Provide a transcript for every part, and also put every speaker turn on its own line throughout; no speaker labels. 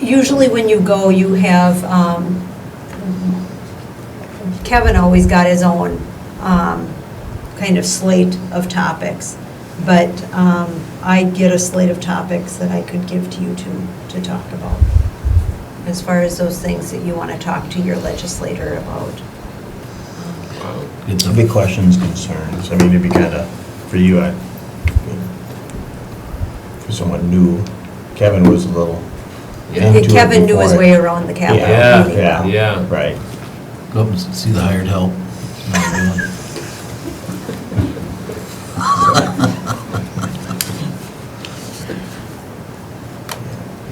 usually when you go, you have, um, Kevin always got his own um, kind of slate of topics, but um, I get a slate of topics that I could give to you to, to talk about, as far as those things that you want to talk to your legislator about.
It's a big questions, concerns. I mean, it'd be kind of, for you, I, for someone new, Kevin was a little.
Yeah.
into it
Kevin knew his
before
way
it.
around the Capitol.
Yeah,
meeting,
yeah.
though.
Yeah.
Right.
Go up and see the hired help.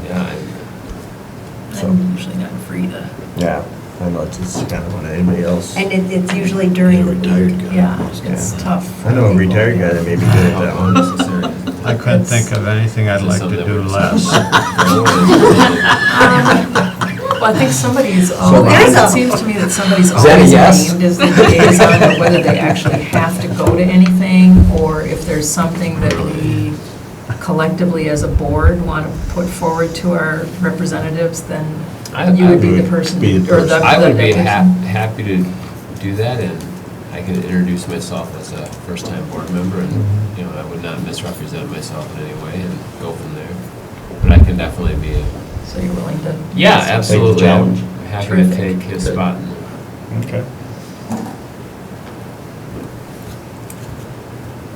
Yeah.
So-
I'm usually not free to,
Yeah, I know, it's, it's kind of what anybody else.
And it- it's usually during the
Retired
week.
guy.
yeah,
Yeah.
it's tough. for
I know a
people.
retired guy that may be good at that one.
I couldn't think of anything I'd like to do less.
Well, I think somebody's
there's
always,
a-
it seems to me that somebody's
Is that a
always
yes?
named as the liaison, but whether they actually have to go to anything, or if there's something that we collectively as a board want to put forward to our representatives, then
I-
you would
I
be the
would
person,
be the
or the.
person.
I would
the
be hap-
person.
happy to do that, and I can introduce myself as a first-time board member, and, you know, I would not misrepresent myself in any way and go from there. But I can definitely be, a
So you're willing to.
yeah, absolutely. I'm
challenge.
Happy to
Terrific.
take his
Good.
spot.
Okay.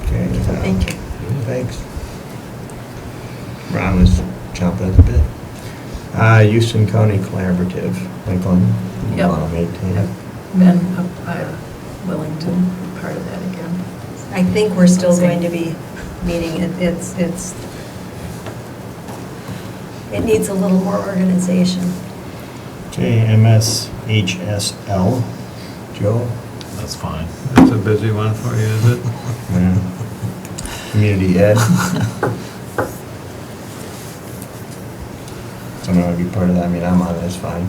Okay. uh,
Thank you.
Thanks. Ron was chomping at the bit. Uh, Houston County Collaborative, Lincoln.
Yep.
Want to maintain it?
Then uh, I'm willing to be part of that again.
I think we're still going to be meeting, It- it's, it's, it needs a little more organization.
JMSHSL. Joe?
That's fine.
It's a busy one for you, is it?
Community Ed. Someone want to be part of that, I mean, I'm on, it, it's fine.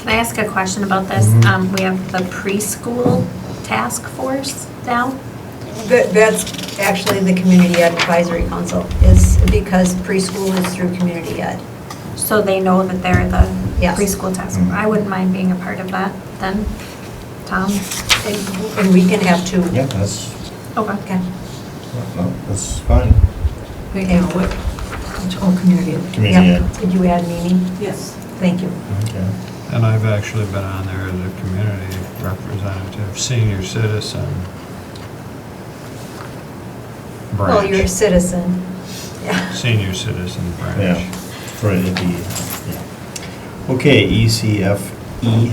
Can I ask a question about this?
Mhm.
Um, We have the preschool task force now.
That- That's actually the Community Ed Advisory Council, is because preschool is through Community Ed.
So they know that they're the
Yes.
preschool task.
Mhm.
I wouldn't mind being a part of that then, Tom.
And and we can have two.
Yeah, that's,
Okay.
Okay.
no, that's fine.
Wait, now, what, oh, community.
Community
Yep.
Ed.
Could you add Mimi? Yes. Thank you.
Okay.
And I've actually been on there as a community representative, senior citizen.
Well, you're a
Branch,
citizen. Yeah.
senior citizen
Yeah,
branch.
for the, yeah. Okay, E ECFE E.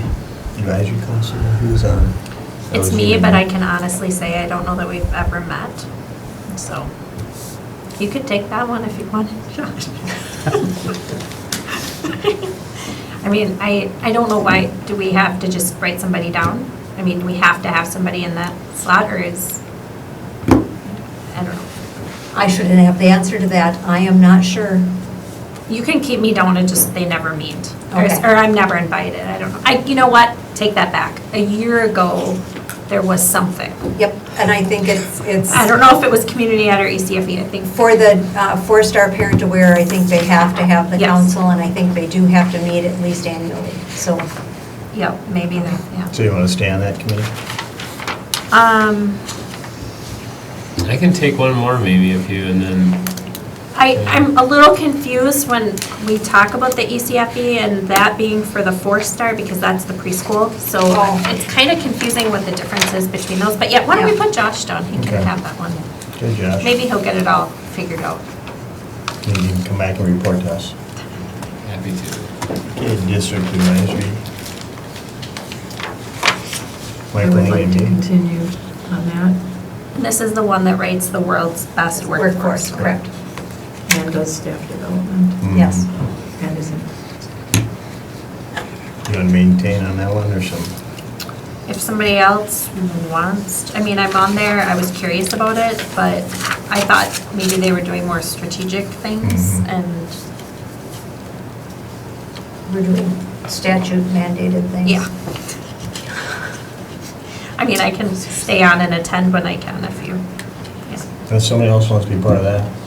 Advisory Council, who's on? That
It's
was
me,
you.
but I can honestly say I don't know that we've ever met. So you could take that one if you wanted, Josh. I mean, I, I don't know why, do we have to just write somebody down? I mean, do we have to have somebody in that slot or is, I don't know.
I shouldn't have the answer to that. I am not sure.
You can keep me down and just, they never meet. Or,
Okay.
or I'm never invited, I don't know. I, you know what, take that back. A year ago, there was something.
Yep, and I think it's, it's.
I don't know if it was community ed or E ECFE, I think.
For the uh, four-star parent aware, I think they have to have the
Yes.
council, and I think they do have to meet at least annually, so.
Yep, maybe that, yeah.
So you want to stay on that committee?
Um,
I can take one more maybe if you, and then,
I, I'm a little confused when we talk about the E ECFE and that being for the four-star because that's the preschool. So
Oh.
it's kind of confusing what the difference is between those. But yeah, why don't we
Yeah.
put Josh down? He
Okay.
can have that one.
Good, Josh.
Maybe he'll get it all figured out.
Maybe you can come back and report to us.
happy to.
Okay, District Advisory.
I
Michael
would like to
and me.
continue on that
This is the one that rates the world's best workforce.
Correct,
and does staff development
Mm.
yes.
and is in
You want to maintain on that one or some?
If somebody else wants, I mean, I'm on there, I was curious about it, but I thought maybe they were doing more strategic things
Mhm.
and,
We're doing statute mandated things.
yeah. I mean, I can stay on and attend when I can if you, yeah.
If somebody else wants to be part of that,